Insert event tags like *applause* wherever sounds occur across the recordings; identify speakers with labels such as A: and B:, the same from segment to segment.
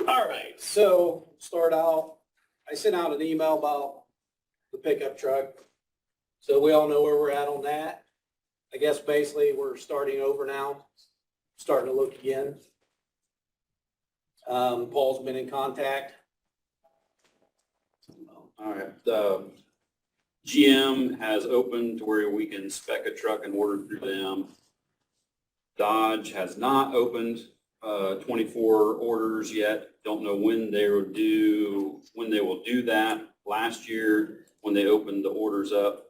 A: right, so start out, I sent out an email about the pickup truck. So we all know where we're at on that. I guess basically we're starting over now, starting to look again. Um, Paul's been in contact.
B: All right, the GM has opened to where we can spec a truck and order through them. Dodge has not opened uh, 24 orders yet. Don't know when they will do, when they will do that. Last year, when they opened the orders up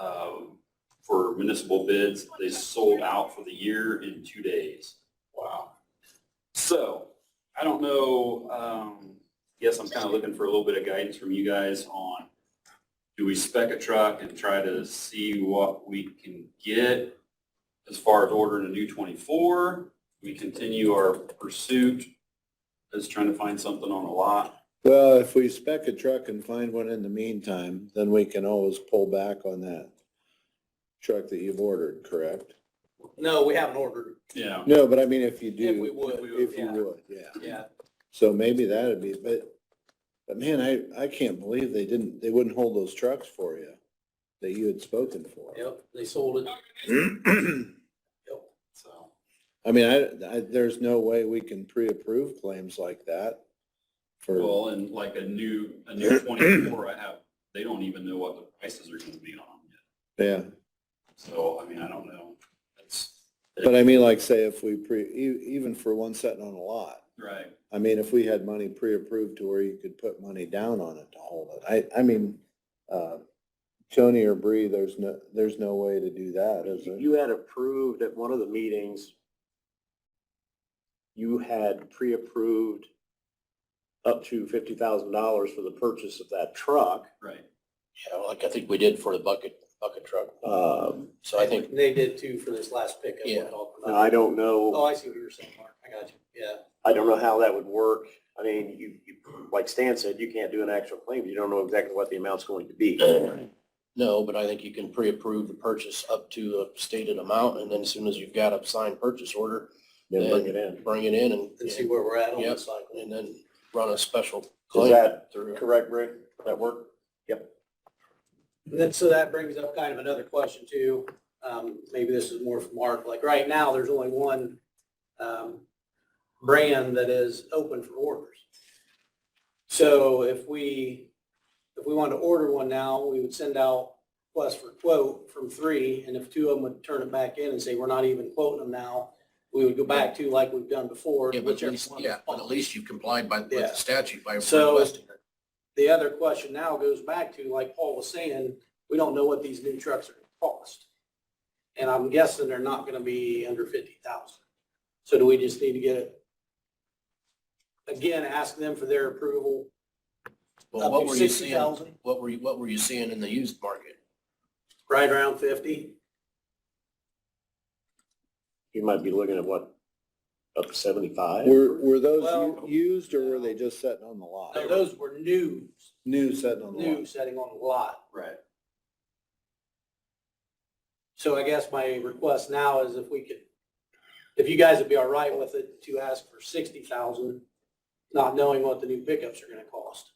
B: um, for municipal bids, they sold out for the year in two days. Wow. So I don't know, um, yes, I'm kind of looking for a little bit of guidance from you guys on, do we spec a truck and try to see what we can get as far as ordering a new 24? We continue our pursuit as trying to find something on a lot.
C: Well, if we spec a truck and find one in the meantime, then we can always pull back on that truck that you've ordered, correct?
A: No, we haven't ordered.
B: Yeah.
C: No, but I mean, if you
A: If we
C: do,
A: would,
C: if you
A: yeah.
C: would, yeah.
A: yeah.
C: So maybe that'd be, but, but man, I, I can't believe they didn't, they wouldn't hold those trucks for you that you had spoken for.
A: Yep, they sold it. Yep.
B: So,
C: *clears throat* I mean, I, I, there's no way we can pre-approve claims like that for,
B: well, and like a new, a new 24, I have, they don't even know what the prices are going to be on them yet.
C: yeah.
B: So, I mean, I don't know. That's,
C: But I mean, like say if we pre, e- even for one sitting on a lot,
B: right.
C: I mean, if we had money pre-approved to where you could put money down on it to hold it, I, I mean, uh, Tony or Bree, there's no, there's no way to do that, is there?
D: You had approved at one of the meetings, you had pre-approved up to fifty thousand dollars for the purchase of that truck.
B: Right.
E: Yeah, like I think we did for the bucket, bucket truck.
D: Um,
E: So I think,
A: They did too for this last pickup. we're
E: Yeah.
A: talking
D: And
A: about.
D: I don't
A: Oh,
D: know,
A: I see what you're saying, Mark. I got you. Yeah.
D: I don't know how that would work. I mean, you, you, like Stan said, you can't do an actual claim. You don't know exactly what the amount's going to be.
E: no, but I think you can pre-approve the purchase up to a stated amount, and then as soon as you've got a signed purchase order,
D: Then bring it in.
E: bring it in and,
A: And see where we're at on the
E: Yep.
A: cycle.
E: and then run a special
D: Is
E: claim
D: that
E: through.
D: correct, Rick? That work?
A: And Then, so that brings up kind of another question too. Um, maybe this is more for Mark. Like right now, there's only one, um, brand that is open for orders. So if we, if we wanted to order one now, we would send out request for quote from three. And if two of them would turn it back in and say, we're not even quoting them now, we would go back to like we've done before.
E: Yeah, but at
A: whichever
E: least,
A: one
E: yeah, but at
A: responds.
E: least you complied by, with
A: Yeah.
E: the statute by
A: So-
E: requesting it.
A: The other question now goes back to, like Paul was saying, we don't know what these new trucks are gonna cost. And I'm guessing they're not gonna be under fifty thousand. So do we just need to get it? Again, ask them for their approval
E: Well,
A: up
E: what
A: to
E: were you
A: sixty
E: seeing,
A: thousand,
E: what were you, what were you seeing in the used market?
A: right around fifty.
D: You might be looking at what, up to seventy-five?
C: Were, were those
A: Well-
C: u- used or were they just sitting on the lot?
A: Now, those were new,
C: New sitting on the
A: new
C: lot?
A: setting on the lot.
B: Right.
A: So I guess my request now is if we could, if you guys would be all right with it, to ask for sixty thousand, not knowing what the new pickups are gonna cost.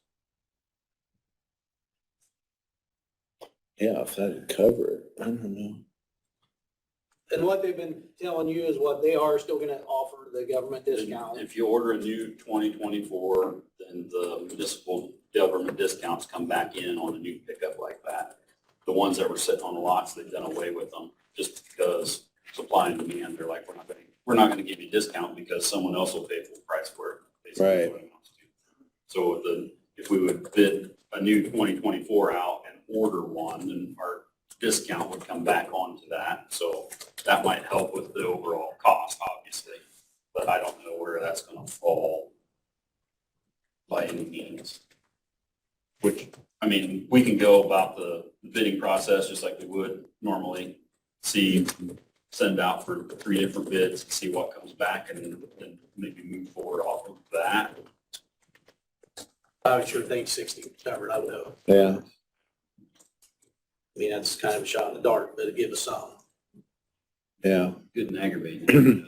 C: Yeah, if that'd cover it, I don't know.
A: And what they've been telling you is what they are still gonna offer the government discount.
B: If you order a new twenty twenty-four, then the municipal government discounts come back in on a new pickup like that. The ones that were sitting on the lots, they've done away with them just because supply and demand, they're like, we're not gonna, we're not gonna give you a discount because someone else will pay full price for it. basically is
C: Right.
B: what it amounts to. So the, if we would bid a new twenty twenty-four out and order one, then our discount would come back onto that. So that might help with the overall cost, obviously but I don't know where that's gonna fall by any means. Which, I mean, we can go about the bidding process just like we would normally, see, send out for three different bids, and see what comes back, and then maybe move forward off of that.
A: I would sure think sixty was covered, I would know.
C: Yeah,
A: I mean, that's kind of a shot in the dark, but it give us some.
C: yeah.
B: Good and aggravating.